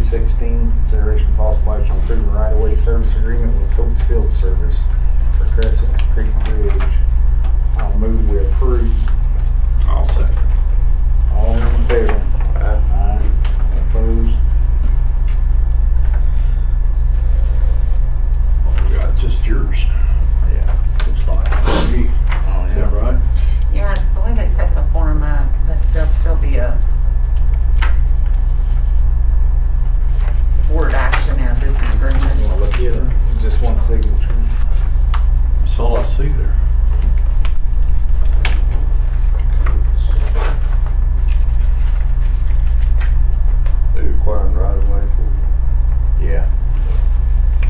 sixteen, consideration of possible action on approving right-of-way service agreement with Coates Field Service for Crescent Creek Bridge. I'll move we approve. I'll second. All in favor? Aye. Opposed? Well, we got just yours, Yeah. looks like. Gee, Oh, Is that right? Yeah, it's the way they set the form up, but there'll still be a board action as it's an You wanna agreement. look at it? Just one signature. That's all I see there. They requiring right of way for Yeah. you.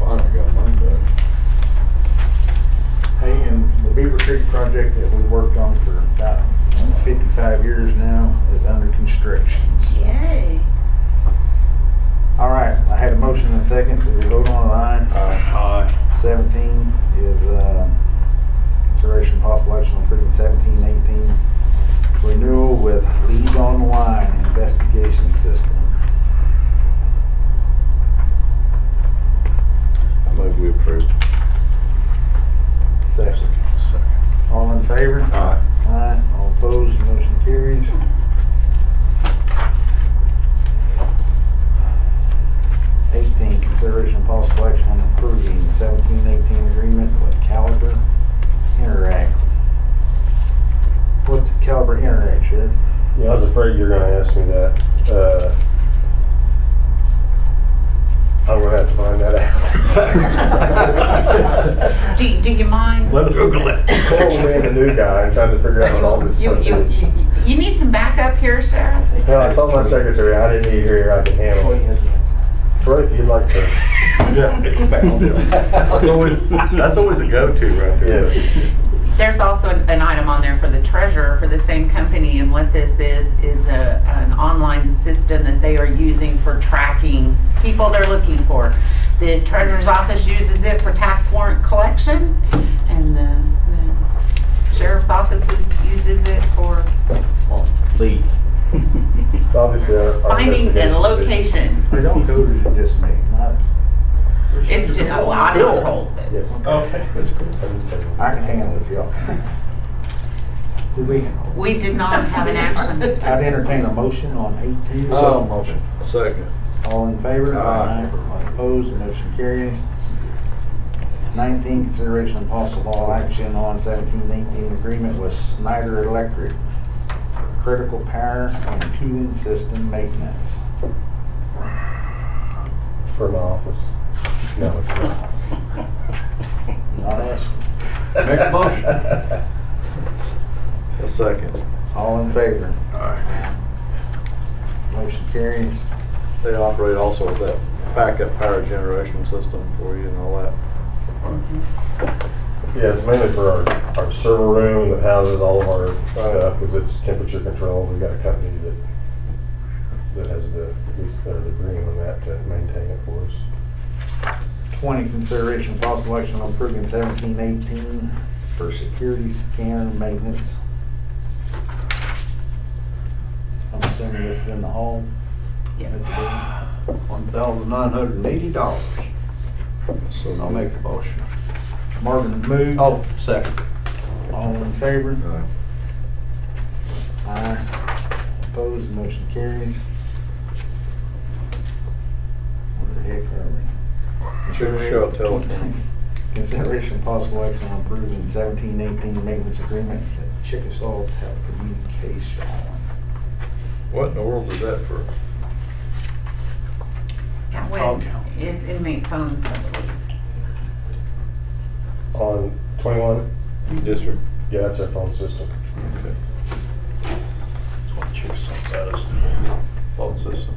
Finally got mine done. Hey, and the Beaver Creek project that we worked on for about fifty-five years now is under construction. so- Yay. All right, I had a motion and a second. Did we vote on it? Aye. Aye. Seventeen is, uh, consideration possible action on approving seventeen eighteen renewal with Lead Online Investigation System. I move we approve. Second. Second. All in favor? Aye. Aye. All opposed, motion carries. Eighteen, consideration of possible action on approving seventeen eighteen agreement with Caliber Interact. What's Caliber Interact, Sheriff? Yeah, I was afraid you were gonna ask me that. Uh, I'm gonna have to find that out. Do, do you mind? Let us Google it. Well, being the new guy and trying to figure out what all this You, stuff you, is. you- you need some backup here, Sheriff? Well, I told my secretary I didn't need her here, I can handle it. Troy, if you'd like to. Yeah, expound it. That's always, that's always a go-to right there. Yes. There's also an an item on there for the treasurer for the same company, and what this is, is a, an online system that they are using for tracking people they're looking for. The treasurer's office uses it for tax warrant collection, and the the sheriff's office is- uses it for Please. Obviously, our. our finding and investigation- location. They don't go to just me, not, It's just, oh, I Bill. don't hold it. Yes. Okay. That's cool. I'm just kidding. I can handle it if y'all. Did we, We did not have an action. I'd entertain a motion on eighteen. So motion. Um, Second. All in favor? Aye. All Opposed, The motion carries. Nineteen, consideration of possible action on seventeen eighteen agreement with Snyder Electric for critical power and cooling system maintenance. For my office. No, it's not. Not asking. Make a motion. A second. All in favor? Aye. Motion carries. They operate also with that backup power generation system for you and all that. Yeah, it's mainly for our, our server room that houses all of our stuff, because it's temperature controlled. We've got a company that, that has the, is- or the green on that to maintain it for us. Twenty, consideration of possible action on approving seventeen eighteen for security scanner maintenance. I'm assuming this is in the hall. Yes. One thousand nine hundred and eighty dollars. So I'll make the motion. Marvin moved. Oh, second. All in favor? Aye. Opposed, motion carries. Where the heck are we? Sure, sure, tell them. Consideration possible action on approving seventeen eighteen maintenance agreement at Chickasaw Telecommunication. What in the world is that for? Yeah, Phone when count. is inmate phones, I believe. On twenty-one, Yes, sir. yeah, that's our phone system. Okay. That's what Chickasaw does. Fault systems.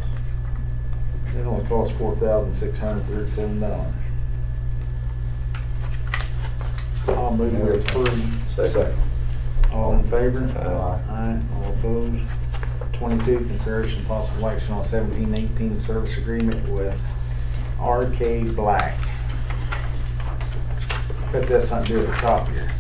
It only costs four thousand six hundred thirty-seven dollars. I'll move we approve. Second. All in favor? Aye. Aye, all opposed. Twenty-two, consideration and possible action on seventeen eighteen service agreement with RK Black. Bet that's something to do with the top here.